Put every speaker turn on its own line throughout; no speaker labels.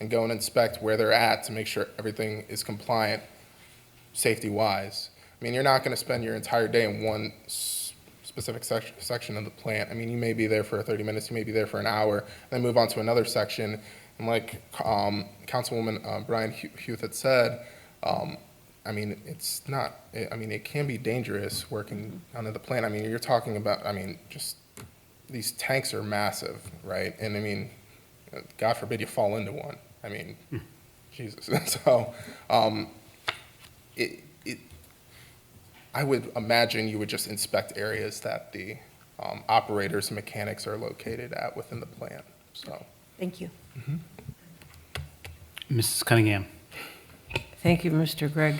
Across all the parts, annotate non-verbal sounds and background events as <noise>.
and go and inspect where they're at to make sure everything is compliant safety-wise. I mean, you're not going to spend your entire day in one s- specific sec- section of the plant. I mean, you may be there for 30 minutes, you may be there for an hour, and then move on to another section. And like um, Councilwoman uh, Brian Hu- Huth had said, um, I mean, it's not, eh, I- I mean, it can be dangerous working under the plant. I mean, you're talking about, I mean, just, these tanks are massive, right? And I mean, God forbid you fall into one. I mean, Jesus. <laughs> So, um, it, it, I would imagine you would just inspect areas that the um, operators and mechanics are located at within the plant, so.
Thank you.
Mrs. Cunningham.
Thank you, Mr. Gregg.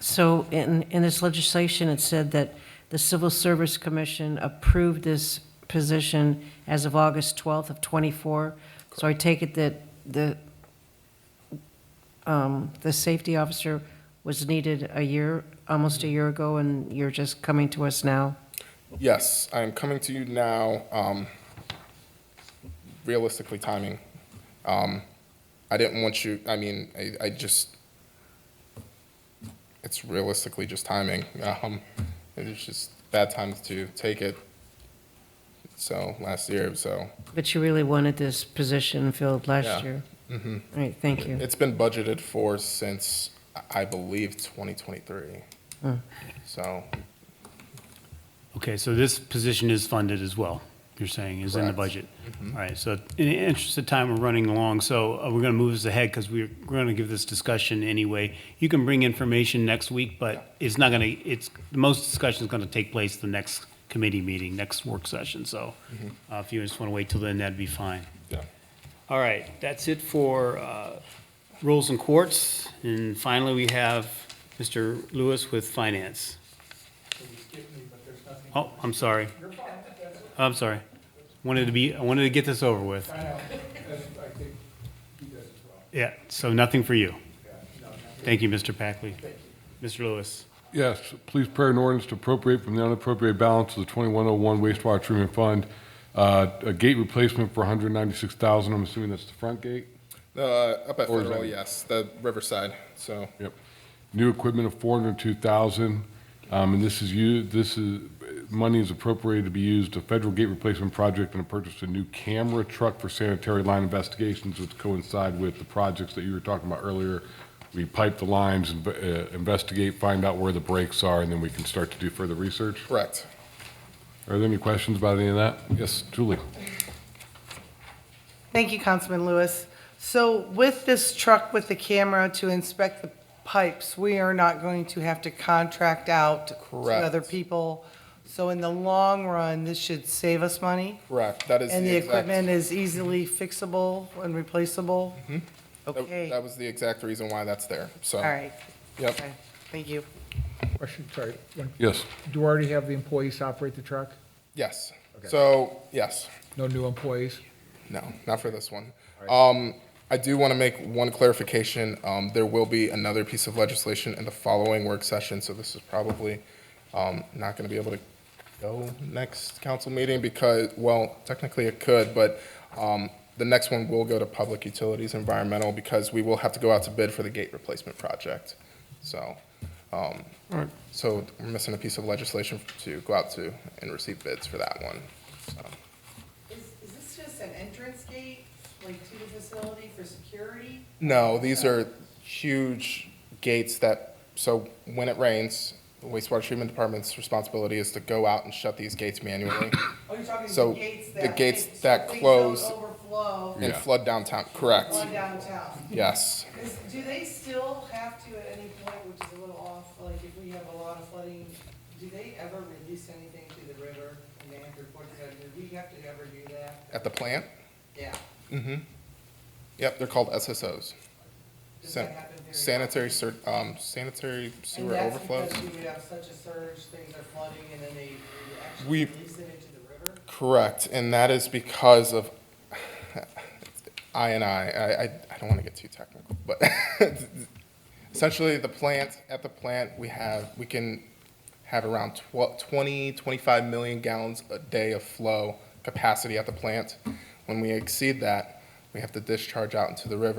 So in, in this legislation, it said that the Civil Service Commission approved this position as of August 12th of '24. So I take it that the, um, the safety officer was needed a year, almost a year ago, and you're just coming to us now?
Yes, I am coming to you now, um, realistically timing. Um, I didn't want you, I mean, I, I just, it's realistically just timing. Um, it's just bad times to take it. So, last year, so,
But you really wanted this position filled
Yeah.
last year?
mhm.
All right, thank you.
It's been budgeted for since, I- I believe, 2023.
Hmm.
So,
Okay, so this position is funded as well, you're saying, is in the
Correct. Mm-hmm.
budget? All right, so in the interest of time, we're running along, so uh, we're going to move this ahead because we're going to give this discussion anyway. You can bring information next week, but it's not going to, it's, the most discussion is going to take place the next committee meeting, next work session, so uh, if you just want to wait till then, that'd be fine.
Mm-hmm. yeah.
All right, that's it for uh, rules and courts, and finally, we have Mr. Lewis with finance. Oh, I'm sorry. I'm sorry. Wanted to be, I wanted to get this over with. Yeah, so nothing for you. Thank you, Mr. Packley. Mr. Lewis.
Yes, please prepare an ordinance to appropriate from the unappropriated balance of the 2101 wastewater treatment fund, uh, a gate replacement for 196,000, I'm assuming that's the front gate?
Uh, up at
Or is
Federal,
that-
yes, the Riverside, so.
Yep. New equipment of 402,000, um, and this is you, this is, money is appropriated to be used to federal gate replacement project and to purchase a new camera truck for sanitary line investigations, which coincide with the projects that you were talking about earlier. We pipe the lines, and, uh, investigate, find out where the breaks are, and then we can start to do further research.
Correct.
Are there any questions about any of that? Yes, Julie?
Thank you, Councilman Lewis. So with this truck with the camera to inspect the pipes, we are not going to have to contract out to
Correct.
other people. So in the long run, this should save us money,
Correct, that is
and
the
the
exact.
equipment is easily fixable and replaceable?
that-
Okay,
Mm-hmm. That
all
was the exact reason why that's there, so.
right,
Yep,
okay, thank you.
Question, sorry. One-
Yes.
Do you already have the employees operate the truck?
yes.
Okay.
So, yes,
No new employees?
no, not for this one. Um, I do want to make one clarification. Um, there will be another piece of legislation in the following work session, so this is probably, um, not going to be able to go next council meeting because, well, technically it could, but, um, the next one will go to Public Utilities Environmental because we will have to go out to bid for the gate replacement project, so. Um, So we're missing a piece of legislation to go out to and receive bids for that one. So
Is, is this just an entrance gate, like to the facility for security?
No, these are huge gates that, so when it rains, the wastewater treatment department's responsibility is to go out and shut these gates manually
Oh, you're talking
So,
the gates
the
that.
gates
so
that
things
close-
don't Overflow
and
Yeah.
flood downtown, correct?
on downtown.
Yes.
Is, do they still have to at any point, which is a little off, like if we have a lot of flooding, do they ever release anything to the river and they have to report to that? Do we have to ever do that?
At the plant?
Yeah.
Mm-hmm. Yep, they're called SSOs.
Does
San-
that happen very often?
Sanitary, cer- um, sanitary
And
sewer
that's
overflows.
because we would have such a surge, things are flooding and then they they
We-
actually release it into the river?
Correct, and that is because of I and I. I, I, I don't want to get too technical, but <laughs> essentially the plant, at the plant, we have, we can have around 12, 20, 25 million gallons a day of flow capacity at the plant. When we exceed that, we have to discharge out into the river.